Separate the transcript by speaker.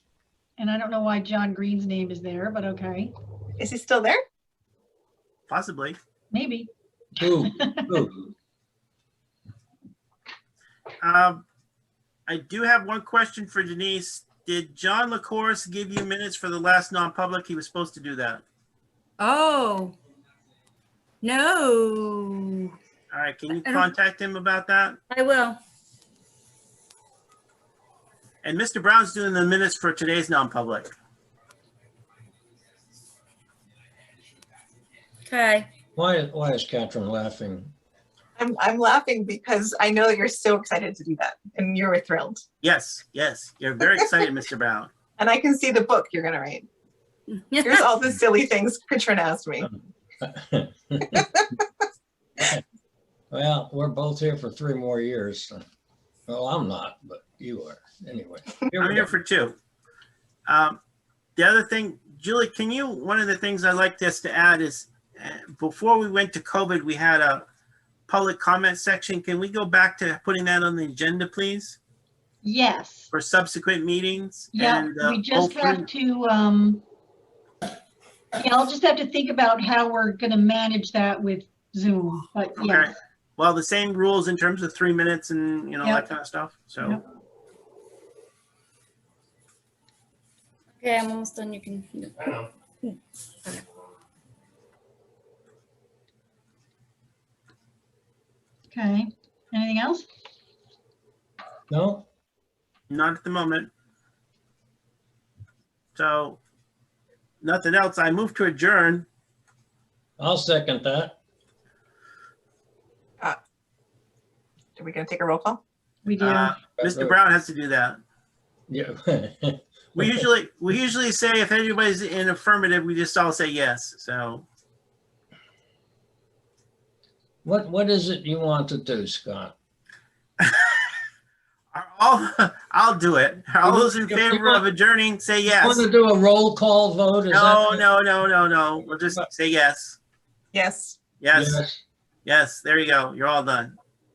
Speaker 1: And I don't know why John Green's name is there, but okay,
Speaker 2: Is he still there?
Speaker 3: Possibly.
Speaker 1: maybe.
Speaker 4: Who? Who?
Speaker 3: Um, I do have one question for Denise. Did John LaCourse give you minutes for the last non-public? He was supposed to do that.
Speaker 5: Oh. No,
Speaker 3: All right, can you
Speaker 5: I don't-
Speaker 3: contact him about that?
Speaker 5: I will.
Speaker 3: And Mr. Brown's doing the minutes for today's non-public.
Speaker 5: Okay.
Speaker 4: Why, why is Catherine laughing?
Speaker 2: I'm, I'm laughing because I know you're so excited to do that and you were thrilled.
Speaker 3: Yes, yes, you're very excited, Mr. Brown.
Speaker 2: And I can see the book you're going to write. Here's all the silly things Katrina asked me.
Speaker 4: Well, we're both here for three more years. Well, I'm not, but you are, anyway. Here
Speaker 3: I'm
Speaker 4: we go.
Speaker 3: here for two. Um, the other thing, Julie, can you, one of the things I'd like us to add is, uh, before we went to COVID, we had a public comment section. Can we go back to putting that on the agenda, please,
Speaker 1: Yes,
Speaker 3: for subsequent meetings?
Speaker 1: yeah,
Speaker 3: And, uh,
Speaker 1: we just
Speaker 3: hopefully-
Speaker 1: have to, um, yeah, I'll just have to think about how we're gonna manage that with Zoom, but
Speaker 3: Okay.
Speaker 1: yes.
Speaker 3: Well, the same rules in terms of three minutes and, you know,
Speaker 1: Yeah.
Speaker 3: that kind of stuff, so.
Speaker 1: Yep.
Speaker 5: Okay, I'm almost done. You can.
Speaker 1: Okay, anything else?
Speaker 4: No,
Speaker 3: Not at the moment. So, nothing else. I move to adjourn.
Speaker 4: I'll second that.
Speaker 2: Are we going to take a roll call?
Speaker 1: We do,
Speaker 3: Uh, Mr. Brown has to do that.
Speaker 4: Yeah.
Speaker 3: We usually, we usually say if anybody's in affirmative, we just all say yes, so.
Speaker 4: What, what is it you want to do, Scott?
Speaker 3: I'll, I'll do it. All those in favor of adjourning, say
Speaker 4: Want
Speaker 3: yes.
Speaker 4: to do a roll call vote? Is that-
Speaker 3: No, no, no, no, no. We'll just say yes.
Speaker 2: Yes.
Speaker 3: Yes, yes, there you go. You're all done.